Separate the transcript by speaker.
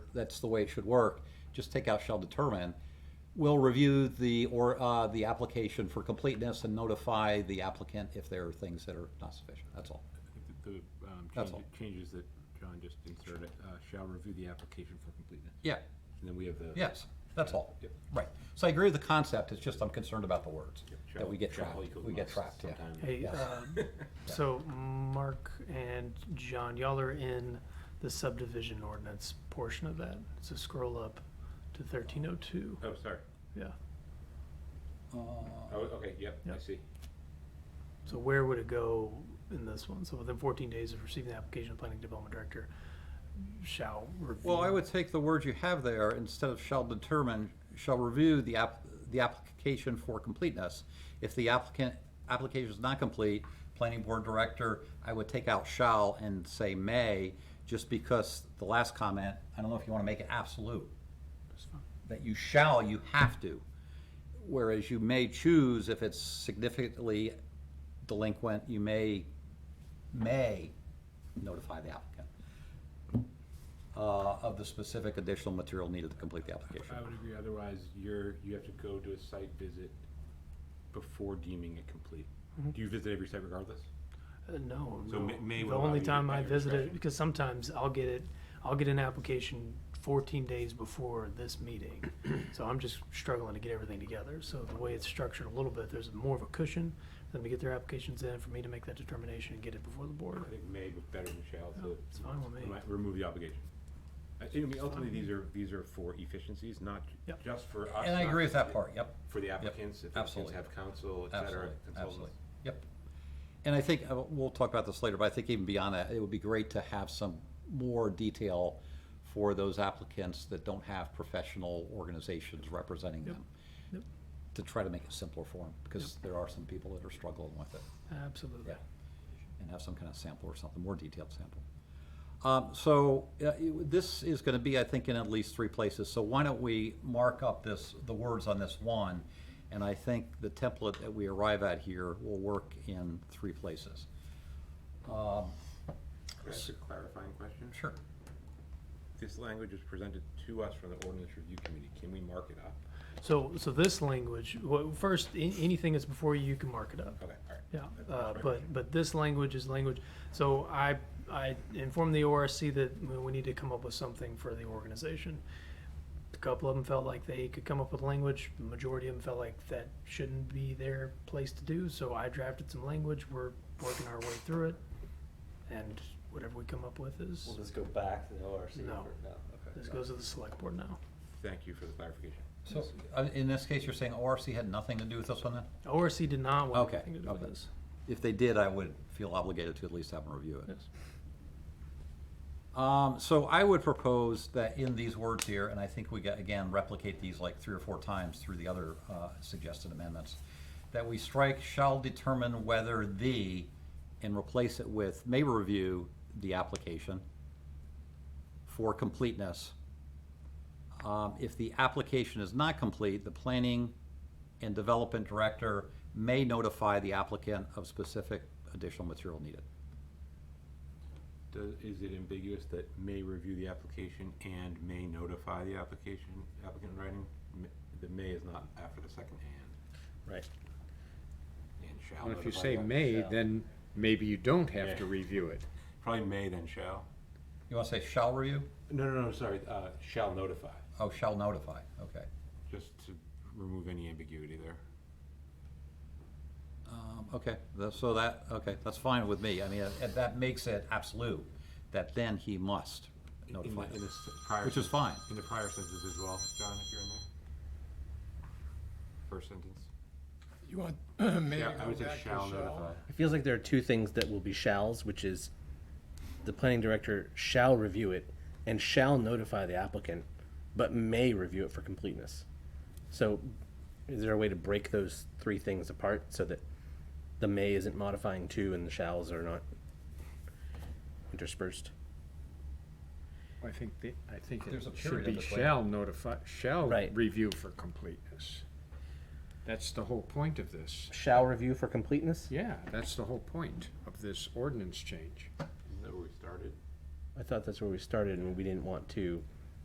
Speaker 1: that's the way it should work. Just take out shall determine. We'll review the, or, uh, the application for completeness and notify the applicant if there are things that are not sufficient, that's all.
Speaker 2: I think that the um,
Speaker 1: That's
Speaker 2: change- changes that John just inserted uh, shall review the application for completeness.
Speaker 1: Yeah,
Speaker 2: And then we have the.
Speaker 1: yes, that's all.
Speaker 2: Yep.
Speaker 1: Right, so I agree with the concept, it's just I'm concerned about the words, that we get
Speaker 2: Shall
Speaker 1: trapped,
Speaker 2: equals
Speaker 1: we get
Speaker 2: must
Speaker 1: trapped, yeah.
Speaker 2: sometime.
Speaker 3: Hey,
Speaker 1: Yes.
Speaker 3: um, so Mark and John, y'all are in the subdivision ordinance portion of that. So scroll up to thirteen oh two,
Speaker 2: Oh, sorry.
Speaker 3: yeah.
Speaker 1: Uh,
Speaker 2: Oh, okay, yep, I
Speaker 3: Yep.
Speaker 2: see.
Speaker 3: So where would it go in this one? So within fourteen days of receiving the application, the planning development director shall review.
Speaker 1: Well, I would take the words you have there, instead of shall determine, shall review the app, the application for completeness. If the applicant, application is not complete, planning board director, I would take out shall and say may, just because the last comment, I don't know if you wanna make it absolute. That you shall, you have to, whereas you may choose if it's significantly delinquent, you may, may notify the applicant uh, of the specific additional material needed to complete the application.
Speaker 2: I would agree, otherwise you're, you have to go to a site visit before deeming it complete.
Speaker 3: Mm-hmm.
Speaker 2: Do you visit every site regardless?
Speaker 3: Uh, No,
Speaker 2: So
Speaker 3: no.
Speaker 2: may- may
Speaker 3: The
Speaker 2: will allow
Speaker 3: only
Speaker 2: you to
Speaker 3: time
Speaker 2: at
Speaker 3: I
Speaker 2: your
Speaker 3: visit it,
Speaker 2: discretion.
Speaker 3: because sometimes I'll get it, I'll get an application fourteen days before this meeting. So I'm just struggling to get everything together. So the way it's structured a little bit, there's more of a cushion for them to get their applications in, for me to make that determination and get it before the board.
Speaker 2: I think may was better than shall
Speaker 3: Yeah,
Speaker 2: to.
Speaker 3: it's fine with me.
Speaker 2: remi- Remove the obligation. I think, I mean, ultimately, these are, these are for efficiencies, not j-
Speaker 3: Yep.
Speaker 2: just for us.
Speaker 1: And I
Speaker 2: not
Speaker 1: agree with that
Speaker 2: for-
Speaker 1: part, yep,
Speaker 2: For the applicants, if applicants
Speaker 1: absolutely.
Speaker 2: have counsel, et cetera,
Speaker 1: absolutely,
Speaker 2: consultants.
Speaker 1: absolutely, yep. And I think, uh, we'll talk about this later, but I think even beyond that, it would be great to have some more detail for those applicants that don't have professional organizations representing them.
Speaker 3: Yep.
Speaker 1: To try to make it simpler for them, because there are some people that are struggling with it.
Speaker 3: Absolutely.
Speaker 1: Yeah, and have some kind of sample or something, more detailed sample. Um, so, uh, it- this is gonna be, I think, in at least three places, so why don't we mark up this, the words on this one? And I think the template that we arrive at here will work in three places. Um,
Speaker 2: Can I ask a clarifying question?
Speaker 1: Sure.
Speaker 2: This language was presented to us from the ordinance review committee. Can we mark it up?
Speaker 3: So, so this language, well, first, a- anything that's before you, you can mark it up.
Speaker 2: Okay, all right.
Speaker 3: Yeah,
Speaker 2: That-
Speaker 3: uh,
Speaker 2: that's my
Speaker 3: but, but this language is language, so I, I informed the ORC that we- we need to come up with something for the organization. A couple of them felt like they could come up with language, the majority of them felt like that shouldn't be their place to do, so I drafted some language, we're working our way through it. And whatever we come up with
Speaker 4: We'll
Speaker 3: is,
Speaker 4: just go back to the ORC for
Speaker 3: No.
Speaker 4: now.
Speaker 3: this goes to the select board now.
Speaker 2: Thank you for the clarification.
Speaker 1: So, uh, in this case, you're saying ORC had nothing to do with this one then?
Speaker 3: ORC did not want
Speaker 1: Okay,
Speaker 3: anything to do with
Speaker 1: okay.
Speaker 3: this.
Speaker 1: If they did, I would feel obligated to at least have them review it.
Speaker 3: Yes.
Speaker 1: Um, so I would propose that in these words here, and I think we got, again, replicate these like three or four times through the other, uh, suggested amendments, that we strike shall determine whether the, and replace it with may review the application for completeness. Um, if the application is not complete, the planning and development director may notify the applicant of specific additional material needed.
Speaker 2: Does, is it ambiguous that may review the application and may notify the application, applicant in writing? M- The may is not after the second and,
Speaker 5: Right.
Speaker 2: and shall
Speaker 5: Well, if you
Speaker 2: notify
Speaker 5: say
Speaker 2: the-
Speaker 5: may,
Speaker 4: shall.
Speaker 5: then maybe you don't
Speaker 2: Yeah.
Speaker 5: have to review it.
Speaker 2: Probably may then shall.
Speaker 1: You wanna say shall review?
Speaker 2: No, no, no, sorry, uh, shall notify,
Speaker 1: Oh, shall notify, okay.
Speaker 2: just to remove any ambiguity there.
Speaker 1: Um, Okay, tha- so that, okay, that's fine with me. I mean, uh, that makes it absolute, that then he must
Speaker 2: In- in
Speaker 1: notify
Speaker 2: the-
Speaker 1: them.
Speaker 2: In this prior.
Speaker 1: Which is
Speaker 2: sen-
Speaker 1: fine.
Speaker 2: In the prior sentence as well, John, if you're in there. First sentence.
Speaker 6: You want, maybe
Speaker 2: Yeah, I
Speaker 6: go
Speaker 2: would say
Speaker 6: back to
Speaker 2: shall notify.
Speaker 6: shall?
Speaker 4: It feels like there are two things that will be shalls, which is the planning director shall review it and shall notify the applicant, but may review it for completeness. So is there a way to break those three things apart so that the may isn't modifying to and the shalls are not interspersed?
Speaker 5: I think the, I think it
Speaker 1: There's a
Speaker 5: should
Speaker 1: period in
Speaker 5: be
Speaker 1: between.
Speaker 5: shall notify, shall
Speaker 4: Right.
Speaker 5: review for completeness. That's the whole point of this.
Speaker 4: Shall review for completeness?
Speaker 5: Yeah, that's the wole point of this ordinance change.
Speaker 2: Isn't that where we started?
Speaker 4: I thought that's where we started and we didn't want to